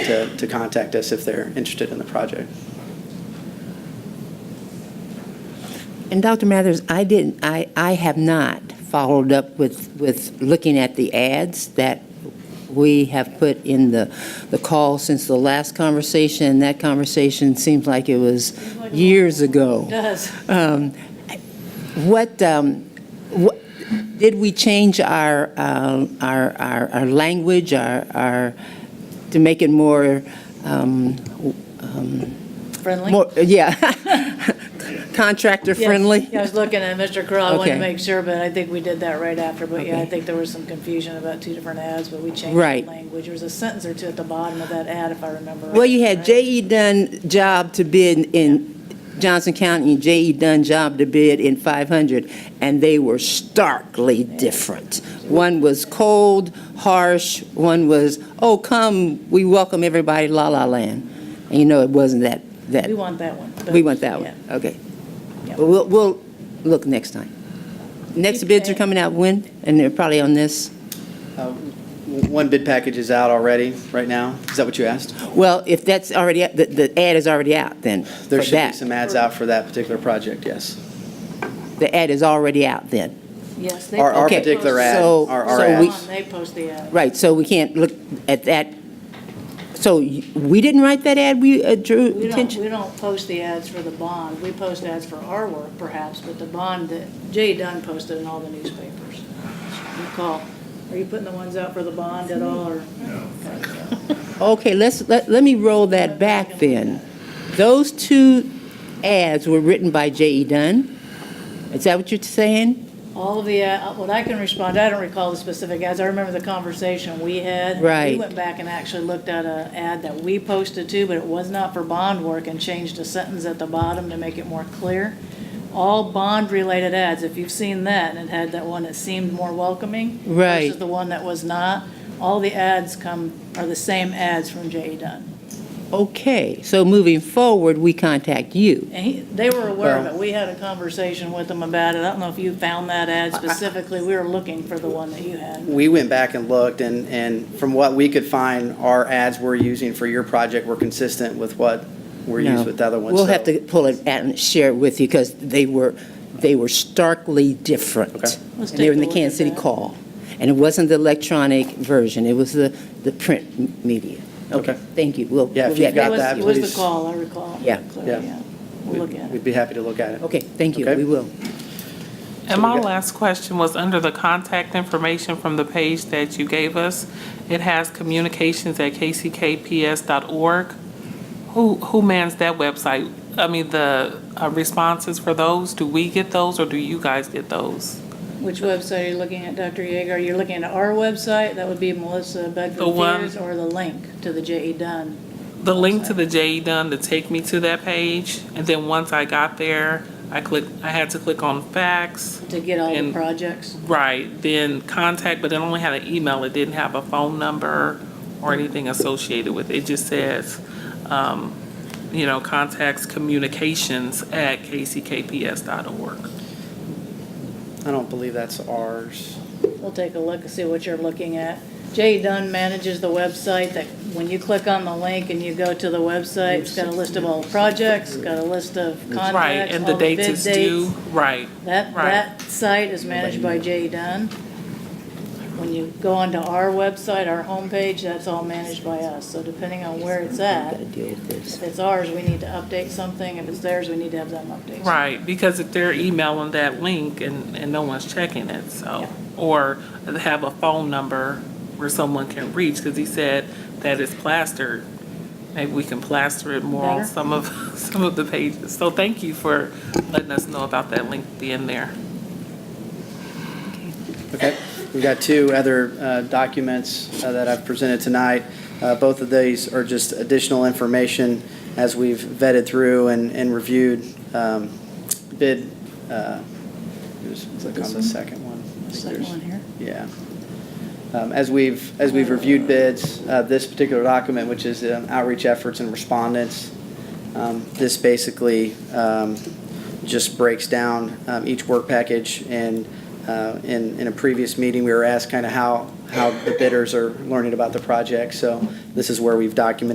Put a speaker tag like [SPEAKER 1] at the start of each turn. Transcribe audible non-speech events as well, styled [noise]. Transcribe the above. [SPEAKER 1] to, to contact us if they're interested in the project.
[SPEAKER 2] And Dr. Mathers, I didn't, I, I have not followed up with, with looking at the ads that we have put in the, the call since the last conversation, and that conversation seems like it was years ago.
[SPEAKER 3] Does.
[SPEAKER 2] Um, What, um, what, did we change our, um, our, our, our language, our, our, to make it more, um, um,
[SPEAKER 3] Friendly?
[SPEAKER 2] more, yeah, [laughs] contractor
[SPEAKER 3] Yes.
[SPEAKER 2] friendly?
[SPEAKER 3] Yeah, I was looking at Mr. Crowell, I wanted to
[SPEAKER 2] Okay.
[SPEAKER 3] make sure, but I think we did that right after, but yeah, I
[SPEAKER 2] Okay.
[SPEAKER 3] think there was some confusion about two different ads, but we changed the
[SPEAKER 2] Right.
[SPEAKER 3] language. There was a sentence or two at the bottom of that ad, if I remember.
[SPEAKER 2] Well, you
[SPEAKER 3] right.
[SPEAKER 2] had J.E. Dunn job to bid in Johnson County, and J.E. Dunn job to bid in 500, and they were starkly different. One was cold, harsh, one was, oh, come, we welcome everybody, la la land. And you know, it wasn't that, that,
[SPEAKER 3] We want that one. but-
[SPEAKER 2] we want that
[SPEAKER 3] yeah.
[SPEAKER 2] one, okay.
[SPEAKER 3] Yeah.
[SPEAKER 2] But we'll, we'll look next time. Next bids are
[SPEAKER 3] Okay.
[SPEAKER 2] coming out when? And they're probably on this?
[SPEAKER 1] Uh, w- One bid package is out already, right now. Is that what you asked?
[SPEAKER 2] Well, if that's already, the, the ad is already out then, for
[SPEAKER 1] There should be
[SPEAKER 2] that.
[SPEAKER 1] some ads out for that particular project, yes.
[SPEAKER 2] The ad is already out then?
[SPEAKER 3] Yes. they
[SPEAKER 1] Our- our
[SPEAKER 3] post-
[SPEAKER 1] particular
[SPEAKER 3] post-
[SPEAKER 1] ad,
[SPEAKER 2] So-
[SPEAKER 1] our-
[SPEAKER 2] our
[SPEAKER 3] Go
[SPEAKER 2] ad.
[SPEAKER 3] on, They post the ad.
[SPEAKER 2] Right, so we can't look at that, so y- we didn't write that ad, we uh, drew
[SPEAKER 3] We don't,
[SPEAKER 2] attention?
[SPEAKER 3] we don't post the ads for the bond. We post ads for our work perhaps, but the bond that Jay Dunn posted in all the newspapers. You call, are you putting the ones out for the bond at all or?
[SPEAKER 2] Okay, let's, let, let me roll that back then. Those two ads were written by J.E. Dunn? Is that what you're saying?
[SPEAKER 3] All of the, uh, what I can respond, I don't recall the specific ads, I remember the conversation we had. We
[SPEAKER 2] Right.
[SPEAKER 3] went back and actually looked at a ad that we posted too, but it was not for bond work and changed a sentence at the bottom to make it more clear. All bond-related ads, if you've seen that, and it had that one that seemed more welcoming.
[SPEAKER 2] Right.
[SPEAKER 3] Versus the one that was not, all the ads come, are the same ads from J.E. Dunn.
[SPEAKER 2] Okay, so moving forward, we contact you.
[SPEAKER 3] And he, they were aware of
[SPEAKER 1] Well-
[SPEAKER 3] it, we had a conversation with them about it, I don't know if you found that ad specifically, we were looking for the one that you had.
[SPEAKER 1] We went back and looked, and, and from what we could find, our ads we're using for your project were consistent with what were
[SPEAKER 2] No.
[SPEAKER 1] used with the other ones.
[SPEAKER 2] We'll have
[SPEAKER 1] so-
[SPEAKER 2] to pull it out and share it with you, because they were, they were starkly different.
[SPEAKER 1] Okay.
[SPEAKER 2] And
[SPEAKER 3] Let's
[SPEAKER 2] they were in the
[SPEAKER 3] take a look at
[SPEAKER 2] Kansas City
[SPEAKER 3] that.
[SPEAKER 2] Call, and it wasn't the electronic version, it was the, the print m- media.
[SPEAKER 1] Okay.
[SPEAKER 2] Thank you, we'll.
[SPEAKER 1] Yeah, if
[SPEAKER 2] we'll
[SPEAKER 1] you've
[SPEAKER 2] get
[SPEAKER 1] got
[SPEAKER 3] It was-
[SPEAKER 1] that,
[SPEAKER 3] It was
[SPEAKER 1] please.
[SPEAKER 3] the call, I recall.
[SPEAKER 2] Yeah.
[SPEAKER 3] clearly,
[SPEAKER 1] Yeah.
[SPEAKER 3] yeah. We'll look at it.
[SPEAKER 1] We'd be happy to look at it.
[SPEAKER 2] Okay, thank you,
[SPEAKER 1] Okay.
[SPEAKER 2] we will.
[SPEAKER 4] And my last question was under the contact information from the page that you gave us. It has communications@kckps.org. Who, who mans that website? I mean, the uh, responses for those, do we get those or do you guys get those?
[SPEAKER 3] Which website are you looking at, Dr. Yeager? Are you looking at our website? That would be Melissa
[SPEAKER 4] The
[SPEAKER 3] Bedford
[SPEAKER 4] one-
[SPEAKER 3] Fears or the link to the J.E. Dunn?
[SPEAKER 4] The link to the JE Dunn to take me to that page, and then once I got there, I clicked, I had to click on fax.
[SPEAKER 3] to get all the
[SPEAKER 4] And-
[SPEAKER 3] projects?
[SPEAKER 4] Right, then contact, but it only had an email, it didn't have a phone number or anything associated with it. It just says, um, you know, contacts communications at kckps.org.
[SPEAKER 1] I don't believe that's ours.
[SPEAKER 3] We'll take a look and see what you're looking at. J.E. Dunn manages the website that, when you click on the link and you go to the website, it's got a list of all the projects, got a list of contacts,
[SPEAKER 4] Right, and the
[SPEAKER 3] all bid
[SPEAKER 4] dates is due,
[SPEAKER 3] oh, dates.
[SPEAKER 4] right.
[SPEAKER 3] That,
[SPEAKER 4] Right.
[SPEAKER 3] that site is managed by Jay Dunn. When you go onto our website, our homepage, that's all managed by us. So depending on where it's
[SPEAKER 2] Got
[SPEAKER 3] at,
[SPEAKER 2] to deal with this.
[SPEAKER 3] if it's ours, we need to update something. If it's theirs, we need to have them update.
[SPEAKER 4] Right, because if they're emailing that link and, and no one's checking it, so, or have a phone number where someone can reach, because he said that it's plastered. Maybe we can plaster it more on
[SPEAKER 3] Better.
[SPEAKER 4] some of, [laughs] some of the pages. So thank you for letting us know about that link being there.
[SPEAKER 1] Okay, we've got two other uh, documents uh, that I've presented tonight. Uh, Both of these are just additional information as we've vetted through and and reviewed um, bid, uh, just click on the second one. I think
[SPEAKER 3] Second
[SPEAKER 1] there's-
[SPEAKER 3] one here.
[SPEAKER 1] Yeah. Um, As we've, as we've reviewed bids, uh, this particular document, which is um, outreach efforts and respondents, um, this basically um, just breaks down um, each work package. And uh, in, in a previous meeting, we were asked kind of how, how the bidders are learning about the project. So this is where we've documented